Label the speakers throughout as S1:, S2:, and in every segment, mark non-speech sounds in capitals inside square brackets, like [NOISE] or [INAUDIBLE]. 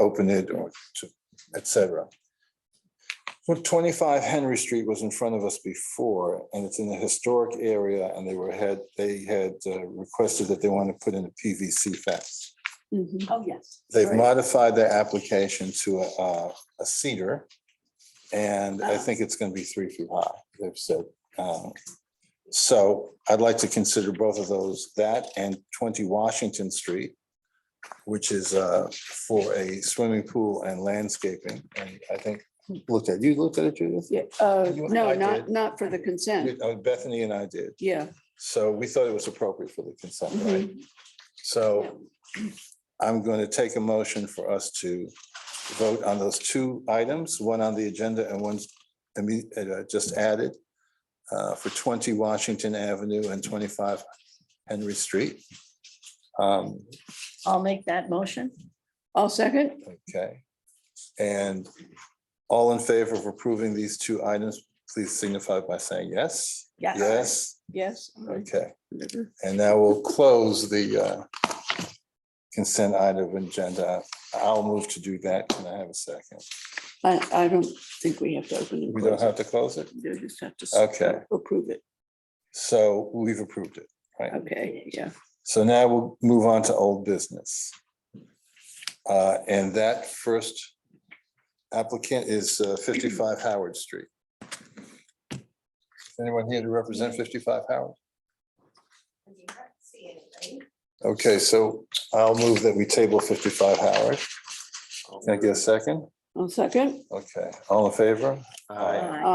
S1: open it or to, et cetera. Well, twenty-five Henry Street was in front of us before, and it's in the historic area, and they were had, they had uh, requested that they want to put in a PVC fence.
S2: Mhm.
S3: Oh, yes.
S1: They've
S3: Right.
S1: modified their application to a, uh, a cedar, and I
S3: Ah.
S1: think it's gonna be three feet high, they've said. Um, So I'd like to consider both of those, that and twenty Washington Street, which is uh, for a swimming pool and landscaping, and I think, looked at, you looked at it, Judith?
S2: Yeah, uh,
S1: You and I
S2: no,
S1: did.
S2: not, not for the consent.
S1: Uh, Bethany and I did,
S2: Yeah.
S1: so we thought it was appropriate for the consent,
S3: Mm-hmm.
S1: right?
S2: mhm.
S1: So I'm going to take a motion for us to vote on those two items, one on the agenda and one imme- uh, just added uh, for 20 Washington Avenue and 25 Henry Street. Um,
S3: I'll make that motion.
S2: I'll second.
S1: Okay. And all in favor of approving these two items, please signify by saying yes.
S3: Yes.
S1: Yes,
S2: Yes.
S1: okay. And now we'll close the uh, consent item agenda. I'll move to do that. Can I have a second?
S2: I, I don't think we have to open and
S1: We don't
S2: close.
S1: have to close it?
S2: You just have to. s-
S1: Okay.
S2: Approve it.
S1: So we've approved it.
S2: Okay, yeah.
S1: So now we'll move on to old business. Uh, And that first applicant is uh, 55 Howard Street. Is Anyone here to represent 55 Howard? Okay, so I'll move that we table 55 Howard. Can I get a second?
S2: I'll second.
S1: Okay, all in favor?
S4: Aye.
S3: Aye.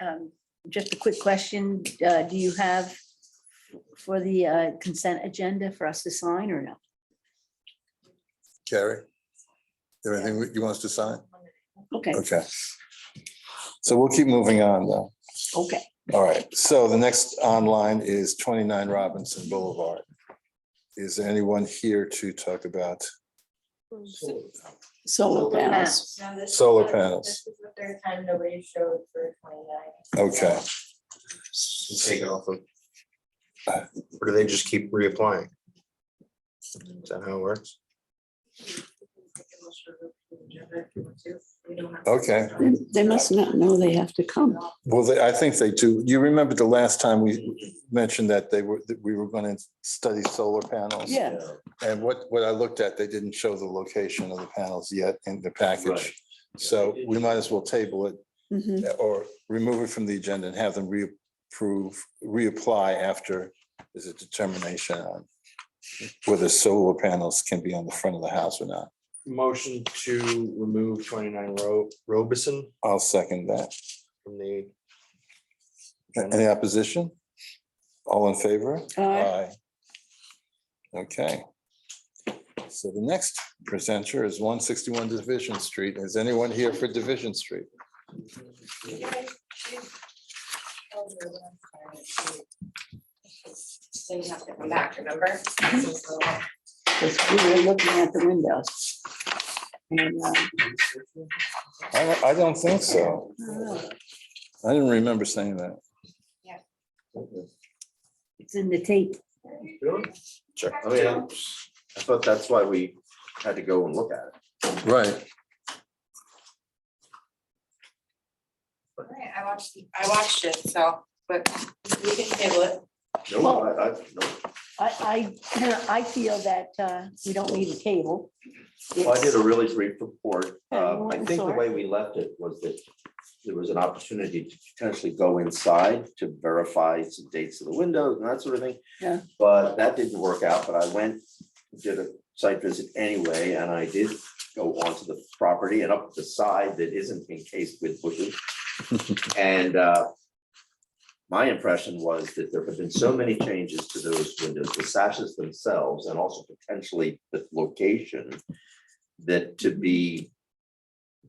S2: Aye.
S3: Um, Just a quick question. uh, Do you have for the uh, consent agenda for us to sign or no?
S1: Carrie? there Anything you want us to sign?
S3: Okay,
S1: Okay. So we'll keep moving on though.
S3: okay.
S1: All right, so the next online is twenty-nine Robinson Boulevard. Is there anyone here to talk about?
S2: Solar panels.
S5: Now this-
S1: Solar
S5: this
S1: panels.
S5: is the third time nobody showed for twenty-nine.
S1: Okay,
S4: Take it off of. Or do they just keep reapplying? Is that how it works?
S1: Okay.
S2: They- They must not know they have to come.
S1: well, they- I think they do. You remember the last time we mentioned that they were, that we were going to study solar panels?
S2: Yeah.
S1: And what, what I looked at, they didn't show the location of the panels yet in the package.
S4: Right.
S1: So we might as well table it
S2: Mhm.
S1: or remove it from the agenda and have them reapprove, reapply after there's a determination on whether solar panels can be on the front of the house or not.
S4: Motion to remove twenty-nine Ro- Robison
S1: I'll second that.
S4: from the.
S1: Any opposition? All in favor?
S2: Aye.
S1: Okay. So the next presenter is one sixty-one Division Street. Is anyone here for Division Street?
S5: So you have to come back, remember? This
S2: Because we were looking at the windows. And, uh,
S1: I, don't- I don't think so.
S3: uh,
S5: is-
S1: I didn't remember saying that.
S3: It's in the tape.
S4: Sure.
S6: I mean, I'm- I thought that's why we had to go and look at it.
S1: Right.
S5: Alright, I watched, I watched it, so, but we can table it.
S6: No, I, I, no.
S3: I, I, [CLEARS THROAT] I feel that uh, we don't need a table.
S6: Well, I did a really brief report. Uh, I
S3: I'm
S6: think the
S3: sorry.
S6: way we left it was that there was an opportunity to potentially go inside to verify some dates of the windows and that sort of thing.
S2: Yeah.
S6: But that didn't work out, but I went, did a site visit anyway, and I did go onto the property and up the side that isn't encased with bushes. And uh, my impression was that there have been so many changes to those windows, the sashes themselves, and also potentially the location, that to be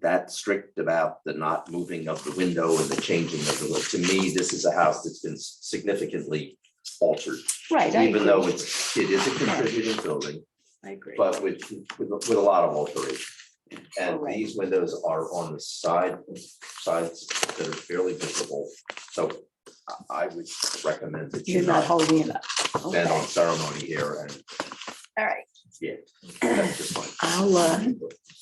S6: that strict about the not moving of the window and the changing of the look, to me, this is a house that's been significantly altered,
S3: Right. I
S6: even though
S3: agree.
S6: it's, it is a contributing building,
S3: I agree.
S6: but with, with, with a lot of alteration. And
S3: Correct.
S6: these windows are on the side, sides that are fairly visible, so I- I would recommend that you
S3: You're not
S6: not
S3: holding it up. Okay.
S6: stand on ceremony here and,
S3: All right.
S6: yeah. that's just fine.
S3: [CLEARS THROAT] I'll, uh,